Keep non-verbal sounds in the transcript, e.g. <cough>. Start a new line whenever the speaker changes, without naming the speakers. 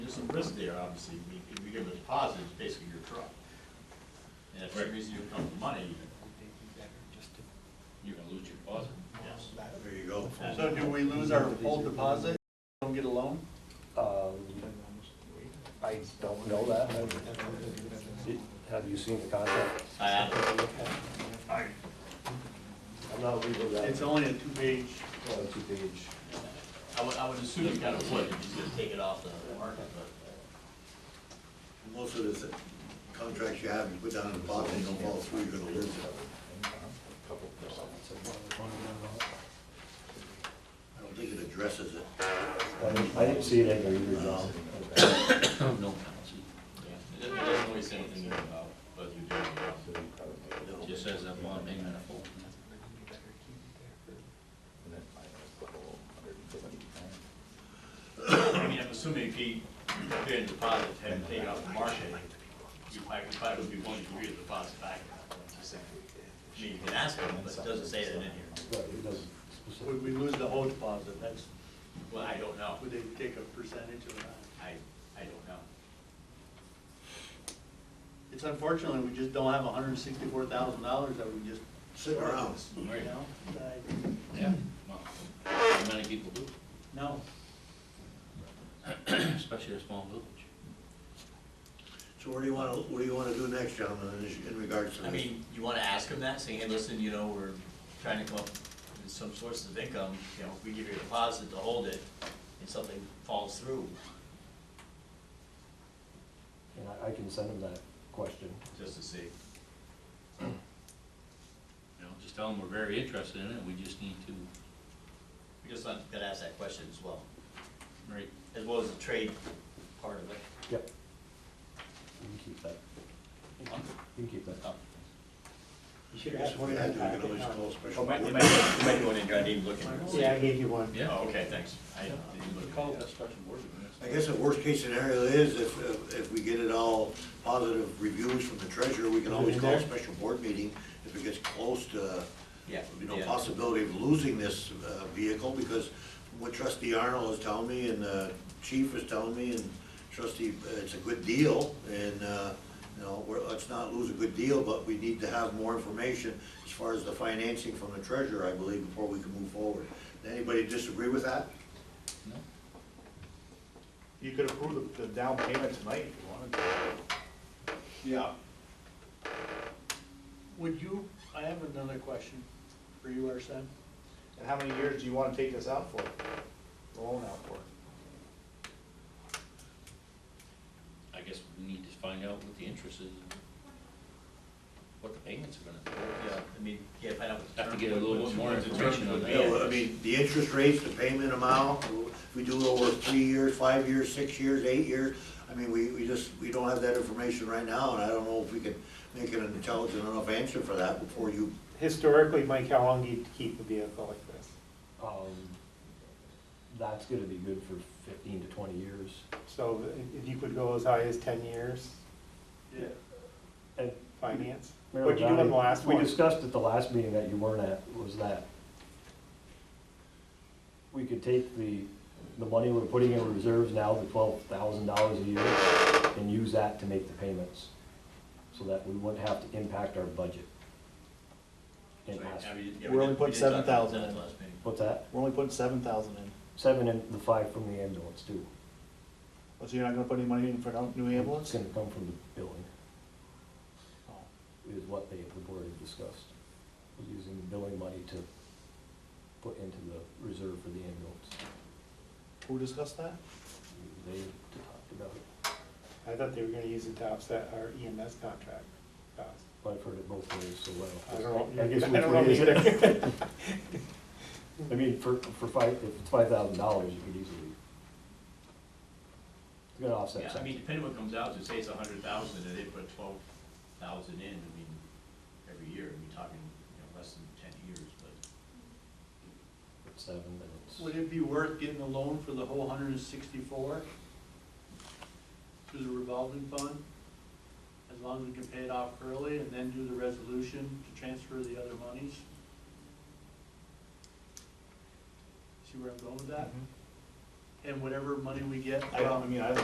risk there, obviously, We- if you give us positive, it's basically your truck. And if the
Right.
reason you come for money,
You're gonna lose your deposit.
yes.
There you go.
So do we lose our full deposit? Don't get a loan?
Um, I don't know that. Have you seen the contract?
I added it.
I'm not legal that.
It's only a two-page,
two-page.
I would, I would assume you kind of would, if he's gonna take it off the market, but
Most of the contracts you have, you put down in the bottom, they don't fall through, you're gonna lose it. I don't think it addresses it.
I didn't- I didn't see it in there either, John.
No penalty.
it doesn't- it doesn't really say anything there about whether you're doing it or not.
No.
It just says that bond payment of full.
I mean, I'm assuming if he, if their deposit had taken off the market, you probably, you probably would be willing to give the deposit back. I mean, you can ask him, but it doesn't say that in here.
Right, it doesn't specifically.
would we lose the whole deposit? That's,
Well, I don't know.
would they take a percentage of that?
I, I don't know.
It's unfortunately, we just don't have hundred and sixty-four thousand dollars that we just.
Sit around.
You know?
Yeah. Well, not Many people do,
No.
especially a small village.
So what do you wanna, what do you wanna do next, gentlemen, in this- in regards to
I
this?
mean, you wanna ask him that, say, hey, listen, you know, we're trying to come up with some sources of income, you know, if we give you a deposit to hold it, and something falls through,
And I, I can send him that question.
just to see.
You know, just tell them we're very interested in it, we just need to,
We just not gonna ask that question as well,
right,
as well as the trade part of it.
Yep. You can keep that. You can keep that.
Oh.
You should
Yes,
have
if
one
we
in
had
that
to, we could
packet.
always
huh?
call a special. board.
Oh, might be one in, I didn't look
Yeah, I gave you one.
yeah.
Oh, okay, thanks. I didn't look.
Call it a special board.
I guess the worst case scenario is if, if- if we get it all positive reviews from the treasurer, we can always call a special board meeting if it gets close to,
Yeah.
you know,
yeah.
possibility of losing this uh, vehicle, because what trustee Arnold is telling me, and uh chief is telling me, and trustee, uh, it's a good deal, and, uh, you know, we're, let's not lose a good deal, but we need to have more information as far as the financing from the treasurer, I believe, before we can move forward. Anybody disagree with that?
No?
You could approve the the down payment tonight if you wanted to.
Yeah. Would you, I have another question for you, Arsen.
And how many years do you wanna take this out for? The loan out for?
I guess we need to find out what the interest is, and what the payments are gonna be.
Yeah, I mean, yeah, find out what the
Have to
term-
get a little
what-
bit more
what the term
information on
would
that.
be.
Yeah, well, I mean, the interest rates, the payment amount, if we do it over three years, five years, six years, eight years, I mean, we, we just, we don't have that information right now, and I don't know if we can make an intelligent enough answer for that before you,
Historically, Mike, how long do you keep a vehicle like this?
Um, that's gonna be good for fifteen to twenty years.
So if you could go as high as ten years
Yeah.
And
finance? What'd
Maryland
you do on
Valley-
the last one?
We discussed at the last meeting that you weren't at, was that we could take the, the money we're putting in reserves now, the twelve thousand dollars a year, and use that to make the payments, so that we wouldn't have to impact our budget. And
So, yeah,
ask-
we did- yeah,
We're
we did-
only putting
we did talk about
7,000
that
in.
last meeting.
What's that?
We're only putting seven thousand in.
Seven and the five from the ambulance too.
Well, so you're not gonna put any money in for a new
It's
ambulance?
gonna come from the billing,
Oh.
is what they, the board had discussed, was using the billing money to put into the reserve for the ambulance.
Who discussed that?
They talked about it,
I thought they were gonna use it to offset our EMS contract costs.
but I've heard it both ways, so
I
well.
don't know.
I guess
I
which
don't
way
know
is <laughs> it?
either.
I mean, for, for five, if it's five thousand dollars, you could easily. It's gonna offset
Yeah, I mean,
something.
depending what comes out, to say it's a hundred thousand, and they put twelve thousand in, I mean, every year, we're talking, you know, less than ten years, but
It's Seven, then it's,
Would it be worth getting a loan for the whole hundred and sixty-four? Through the revolving fund? As long as we can pay it off early and then do the resolution to transfer the other monies? See where I'm going with that? And whatever money we get
I don't, I
from
mean, I don't